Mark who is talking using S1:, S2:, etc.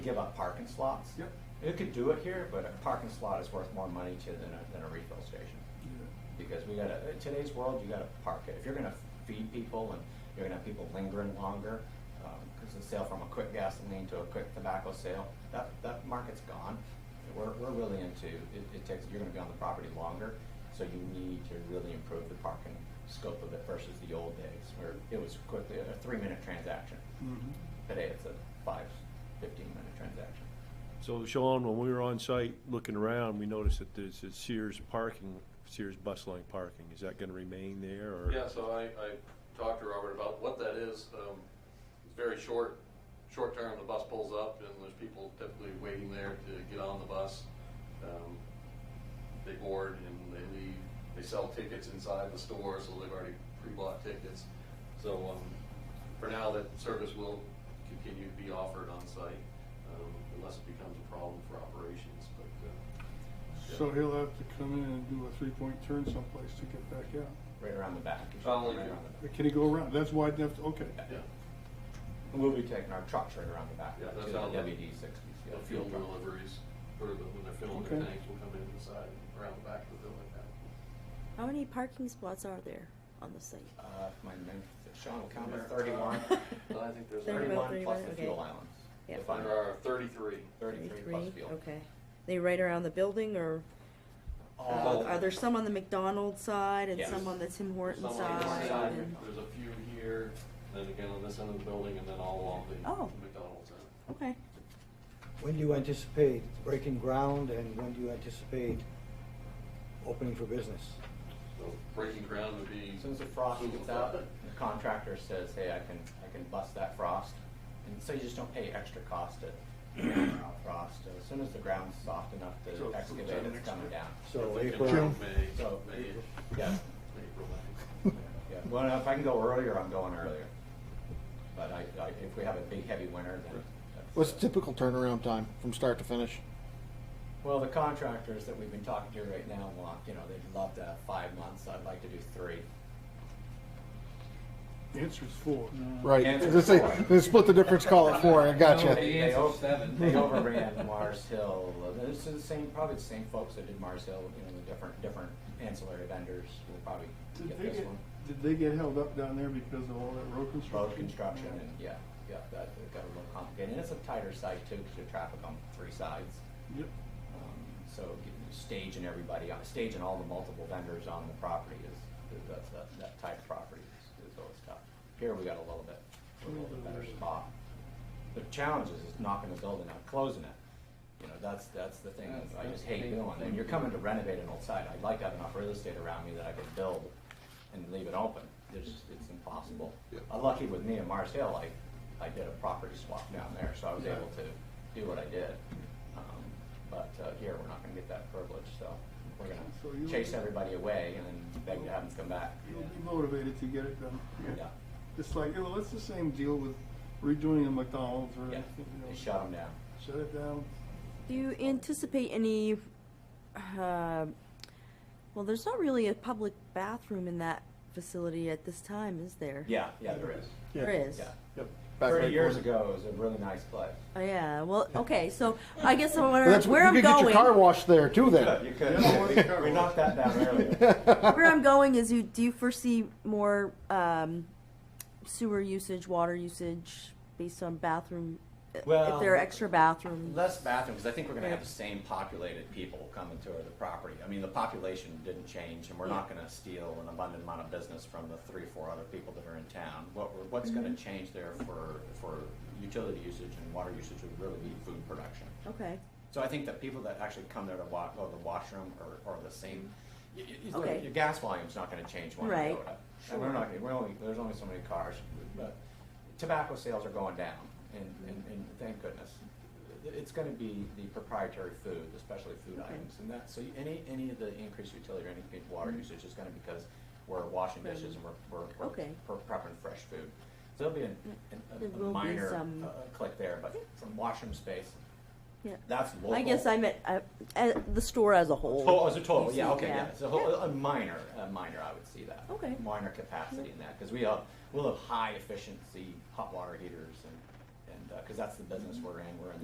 S1: give up parking slots.
S2: Yep.
S1: You could do it here, but a parking slot is worth more money to than a, than a refill station. Because we gotta, in today's world, you gotta park it. If you're gonna feed people and you're gonna have people lingering longer, because the sale from a quick gasoline to a quick tobacco sale, that, that market's gone. We're, we're really into, it, it takes, you're gonna be on the property longer, so you need to really improve the parking scope of it versus the old days where it was quickly a three-minute transaction.
S2: Mhm.
S1: Today, it's a five, fifteen-minute transaction.
S3: So Sean, when we were on site looking around, we noticed that there's a Sears parking, Sears bus line parking. Is that gonna remain there or?
S4: Yeah, so I, I talked to Robert about what that is. Um, it's very short, short term, the bus pulls up and there's people typically waiting there to get on the bus. Um, They board and they leave. They sell tickets inside the store, so they've already pre-bought tickets. So, um, for now, that service will continue to be offered on site, um, unless it becomes a problem for operations, but, uh,
S2: So he'll have to come in and do a three-point turn someplace to get back out.
S1: Right around the back. You should
S4: Following
S1: right
S4: you.
S1: around the back.
S2: Can he go around? That's why I'd have to, okay.
S4: yeah.
S1: And We'll be taking our trucks right around the back.
S4: Yeah,
S1: to
S4: that's
S1: the
S4: how the-
S1: WD sixties.
S4: you know, fuel deliveries, or the, when they're filling their
S2: Okay.
S4: tanks, will come in inside, around the back of the building.
S5: How many parking spots are there on the site?
S1: Uh, if my mem- Sean will count
S4: There.
S1: it, thirty-one.
S4: Uh, Well, I think there's
S5: There
S4: already,
S5: about
S1: Thirty-one plus
S5: 31,
S1: the
S5: okay.
S1: fuel islands.
S5: Yeah.
S1: If I'm-
S4: there are thirty-three.
S1: Thirty-three plus fuel.
S5: Okay. They right around the building or, uh,
S4: Oh.
S1: All-
S5: are there some on the McDonald's side and
S1: Yes.
S5: some on the Tim Horton
S4: Some on the
S5: side?
S4: side,
S5: and-
S4: There's a few here, then again on this end of the building, and then all along the
S5: Oh.
S4: McDonald's end.
S5: Okay.
S6: When do you anticipate breaking ground and when do you anticipate opening for business?
S4: So breaking ground would be.
S1: As soon as the frost
S4: soon as
S1: gets
S4: the-
S1: out, the contractor says, hey, I can, I can bust that frost. And so you just don't pay extra cost to out frost. As soon as the ground's soft enough
S2: So
S1: to
S2: it's
S1: excavate,
S2: next
S1: it's coming
S2: year.
S1: down.
S6: So
S4: If it
S6: April,
S4: can
S2: June.
S4: be May,
S1: So,
S4: May,
S1: yeah,
S4: April, May.
S1: yeah. Well, if I can go earlier, I'm going earlier. But I, I, if we have a big heavy winter, then. that's,
S7: What's
S1: uh,
S7: the typical turnaround time from start to finish?
S1: Well, the contractors that we've been talking to right now want, you know, they'd love to have five months, I'd like to do three.
S2: The answer's four.
S7: Right.
S1: Answer
S7: Let's say-
S1: four.
S7: let's split the difference, call it four. I got
S1: No,
S7: gotcha.
S1: They
S7: you.
S8: The
S1: they
S8: answer's
S1: over-
S8: seven.
S1: they overran Mars Hill, this is the same, probably the same folks that did Mars Hill, you know, the different, different ancillary vendors will probably
S2: Did
S1: get
S2: they
S1: this
S2: get,
S1: one.
S2: did they get held up down there because of all that road construction?
S1: Road construction and, yeah, yeah, that, that got a little complicated, and it's a tighter site too, because there's traffic on three sides.
S2: Yep.
S1: Um, So getting- staging everybody, on- staging all the multiple vendors on the property is, is- that's, that, that type of property is, is always tough. Here, we got a little bit, a little bit better spot. The challenge is just knocking the building out, closing it. You know, that's, that's the thing, that I just hate doing, and you're coming to renovate an old site, I'd like to have enough real estate around me that I could build and leave it open, it's, it's impossible. Lucky with me in Mars Hill, I, I did a property swap down there, so I was able to do what I did. Um, But uh, here, we're not gonna get that privilege, so we're
S2: So you-
S1: gonna chase everybody away and then beg to have them come back.
S2: You'll be motivated to get it done.
S1: Yeah,
S2: It's like, well, it's the same deal with redoing a McDonald's or
S1: yeah,
S2: anything, you know.
S1: they shut them down.
S2: Shut it down.
S5: Do you anticipate any, uh, well, there's not really a public bathroom in that facility at this time, is there?
S1: Yeah, yeah, there is,
S5: There is?
S1: yeah.
S7: Yep. Back
S1: Thirty
S7: right
S1: years
S7: corner.
S1: ago, it was a really nice place.
S5: Oh, yeah, well, okay, so I guess I'm
S7: Well,
S5: wondering
S7: that's
S5: where
S7: you
S5: I'm
S7: could get
S5: going.
S7: your car washed there too. Then
S1: You could,
S2: Yeah, we-
S1: we knocked that down earlier.
S5: Where I'm going is you, do you foresee more um, sewer usage, water usage based on bathroom? uh,
S1: Well-
S5: if there are extra bathrooms?
S1: Less bathrooms, I think we're gonna have the same populated people come and tour the property. I mean, the population didn't change, and we're not gonna steal an abundant amount of business from the three, or four other people that are in town. What, we're- what's gonna change there for, for utility usage and water usage would really be food production.
S5: Okay.
S1: So I think that people that actually come there to wa, go to the washroom are, are the same. Y- y- y-
S5: Okay.
S1: Your gas volume's not gonna change one
S5: Right.
S1: iota. And we're not, we're only, there's only so many cars, but tobacco sales are going down, and, and, and thank goodness. It- It's gonna be the proprietary food, especially food
S5: Okay.
S1: items and that, so any, any of the increased utility or any big
S5: Mm-hmm.
S1: water usage is gonna be because we're washing dishes and we're, we're, we're
S5: Okay. Mm.
S1: pre- prepping fresh food. So there'll be an- an-
S5: There
S1: a-
S5: will
S1: a
S5: be
S1: minor
S5: some-
S1: uh, click there, but from washroom space,
S5: Yeah.
S1: that's local.
S5: I guess I meant uh, uh, the store as a whole.
S1: Oh, as a total,
S5: You
S1: yeah,
S5: see,
S1: okay, yeah, it's a whole,
S5: Yeah.
S1: a minor, a minor, I would see that.
S5: Okay.
S1: Minor capacity in that, because we have, we'll have high efficiency hot water heaters and, and, because that's uh, the business we're in, we're in